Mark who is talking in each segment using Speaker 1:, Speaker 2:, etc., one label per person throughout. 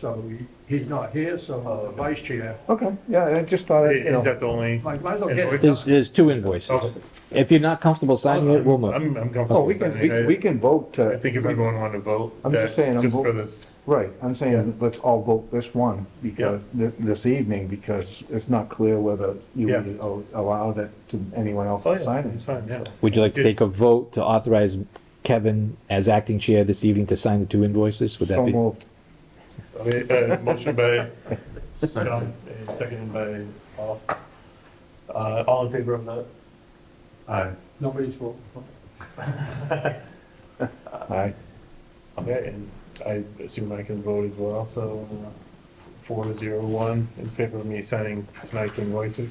Speaker 1: so he- he's not here, so the vice chair
Speaker 2: Okay, yeah, I just thought, you
Speaker 3: Is
Speaker 2: know,
Speaker 3: that the only?
Speaker 1: might might as well get it.
Speaker 4: There's, there's two invoices.
Speaker 3: Oh,
Speaker 4: If you're not comfortable signing it, we'll move.
Speaker 3: I'm, I'm
Speaker 2: oh,
Speaker 3: comfortable
Speaker 2: we
Speaker 3: with
Speaker 2: can, we- we
Speaker 3: that.
Speaker 2: can vote
Speaker 3: I- I
Speaker 2: to,
Speaker 3: think if everyone wanted to vote.
Speaker 2: I'm just
Speaker 3: that-
Speaker 2: saying, I'm
Speaker 3: for
Speaker 2: voting.
Speaker 3: this,
Speaker 2: right, I'm saying, let's all vote this one, because, this, this evening, because it's not clear whether you
Speaker 3: Yeah.
Speaker 2: would al- allow that to anyone else
Speaker 3: oh,
Speaker 2: to
Speaker 3: yeah,
Speaker 2: sign
Speaker 3: it's
Speaker 2: it.
Speaker 3: fine, yeah.
Speaker 4: Would you like to take a vote to authorize Kevin as acting chair this evening to sign the two invoices? Would that
Speaker 2: So
Speaker 4: be?
Speaker 2: moved.
Speaker 3: Uh, Motion by John, and seconded by Paul. Uh, all in favor of that? Aye.
Speaker 1: Nobody's voting.
Speaker 2: Aye.
Speaker 3: Okay, and I assume I can vote as well, so uh, four zero one in favor of me signing tonight's invoices.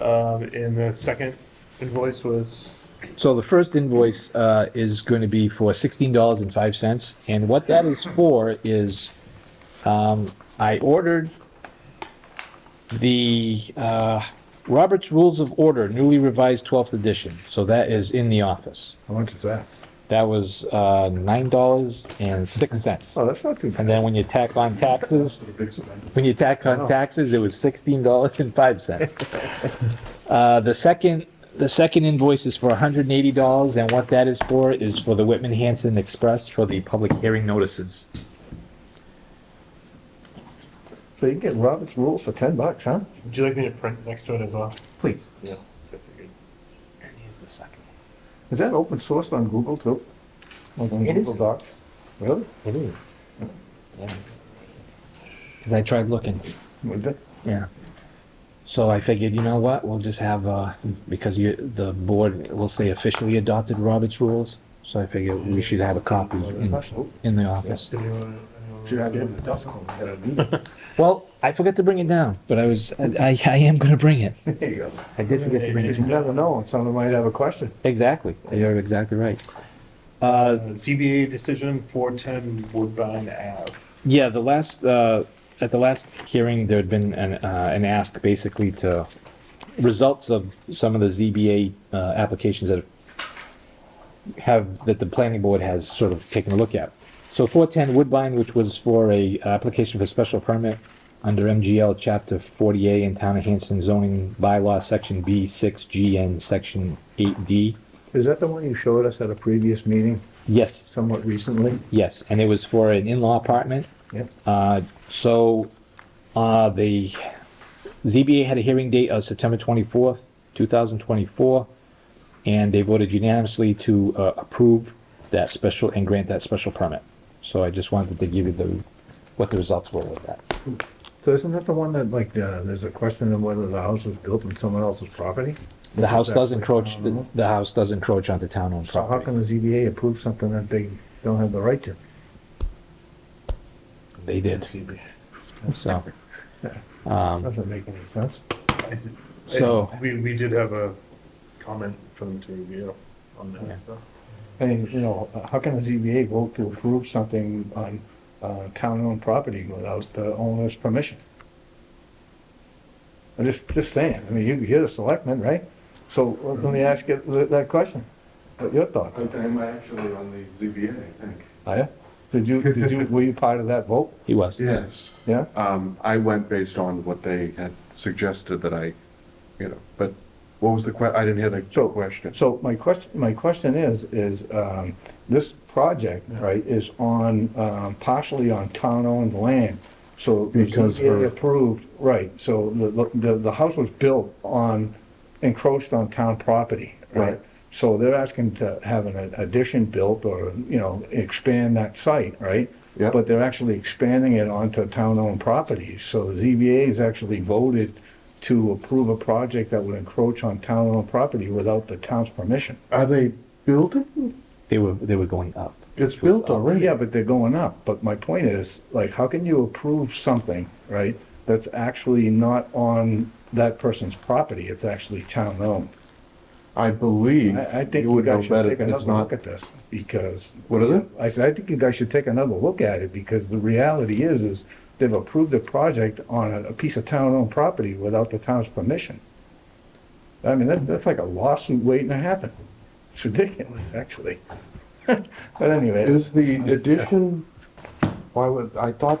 Speaker 3: Um, and the second invoice was,
Speaker 4: So the first invoice uh, is going to be for $16.05. And what that is for is um, I ordered the uh, Robert's Rules of Order, newly revised 12th edition. So that is in the office.
Speaker 2: How much is that?
Speaker 4: That was uh, $9.06.
Speaker 2: Oh, that's not too
Speaker 4: And
Speaker 2: bad.
Speaker 4: then when you tack on taxes, when you tack on taxes, it was sixteen dollars and five cents. Uh, the second, the second invoice is for hundred and eighty dollars, and what that is for is for the Whitman Hanson Express for the public hearing notices.
Speaker 2: So you can get Robert's rules for ten bucks, huh?
Speaker 3: would you like me to print next to it as well?
Speaker 4: Please.
Speaker 3: Yeah. I figured.
Speaker 4: And here's the second. one.
Speaker 2: Is that open source on Google too? Like on
Speaker 4: It is.
Speaker 2: Google Docs? Really?
Speaker 4: It is. Cause I tried looking,
Speaker 2: Would that-
Speaker 4: yeah. So I figured, you know what, we'll just have, uh, because you, the board will say officially adopted Robert's rules, so I figured we should have a copy in,
Speaker 2: Oh,
Speaker 4: in the office.
Speaker 3: Did anyone- anyone-
Speaker 2: Should have it in the dust cone.
Speaker 4: Well, I forgot to bring it down, but I was, I, I I am gonna bring it.
Speaker 2: There you go.
Speaker 4: I did forget to bring it
Speaker 2: You
Speaker 4: down.
Speaker 2: never know, someone might have a question.
Speaker 4: Exactly, you're exactly right. Uh,
Speaker 3: Uh, ZBA decision, four ten Woodbine Ave.
Speaker 4: yeah, the last, uh, at the last hearing, there had been an, uh, an ask basically to results of some of the ZBA, uh, applications that have, that the planning board has sort of taken a look at. So 410 Woodbine, which was for a application for special permit under MGL Chapter 40A in Town of Hanson zoning bylaw, Section B6G and Section 8D.
Speaker 2: Is that the one you showed us at a previous meeting
Speaker 4: Yes,
Speaker 2: somewhat recently?
Speaker 4: yes, and it was for an in-law apartment.
Speaker 2: Yep.
Speaker 4: Uh, So, uh, the ZBA had a hearing date of September 24th, 2024, and they voted unanimously to uh, approve that special and grant that special permit. So I just wanted to give you the, what the results were with that.
Speaker 2: So isn't that the one that like, uh, there's a question of whether the house was built on someone else's property?
Speaker 4: The house
Speaker 2: Exactly.
Speaker 4: does encroach, the- the house does encroach onto town-owned
Speaker 2: So how
Speaker 4: property.
Speaker 2: can the ZBA approve something that they don't have the right to?
Speaker 4: They did, so. um,
Speaker 2: Doesn't make any sense.
Speaker 3: I did-
Speaker 4: So-
Speaker 3: I- We, we did have a comment for them to review on
Speaker 4: Yeah.
Speaker 3: that stuff.
Speaker 2: I mean, you know, how can the ZBA vote to approve something on, uh, town-owned property without the owner's permission? I'm just, just saying, I mean, you, you're the selectman, right? So uh, let me ask you th- that question, what your thoughts?
Speaker 5: I- I'm actually on the ZBA, I think.
Speaker 2: Are you? Did you, did you, were you part of that vote?
Speaker 4: He was.
Speaker 5: Yes.
Speaker 2: Yeah?
Speaker 5: Um, I went based on what they had suggested that I, you know, but what was the que, I didn't hear the
Speaker 2: So-
Speaker 5: question.
Speaker 2: So my question, my question is, is, um, this project, right, is on, um, partially on town-owned land. So the
Speaker 5: Because
Speaker 2: ZBA
Speaker 5: her-
Speaker 2: approved, right, so the, the, the house was built on, encroached on town property, right?
Speaker 5: Right.
Speaker 2: So they're asking to have an addition built or, you know, expand that site, right?
Speaker 5: Yeah.
Speaker 2: But they're actually expanding it onto town-owned properties, so the ZBA has actually voted to approve a project that would encroach on town-owned property without the town's permission.
Speaker 5: Are they building?
Speaker 4: They were, they were going up.
Speaker 5: It's built already.
Speaker 2: Yeah, but they're going up, but my point is, like, how can you approve something, right, that's actually not on that person's property, it's actually town-owned?
Speaker 5: I believe
Speaker 2: I, I think
Speaker 5: you
Speaker 2: you
Speaker 5: would know
Speaker 2: guys should
Speaker 5: better.
Speaker 2: take
Speaker 5: It's
Speaker 2: another
Speaker 5: not,
Speaker 2: look at this, because
Speaker 5: what is it?
Speaker 2: I said, I think you guys should take another look at it, because the reality is, is they've approved a project on a, a piece of town-owned property without the town's permission. I mean, that, that's like a lawsuit waiting to happen. It's ridiculous, actually. But anyway.
Speaker 5: Is the addition, why would, I thought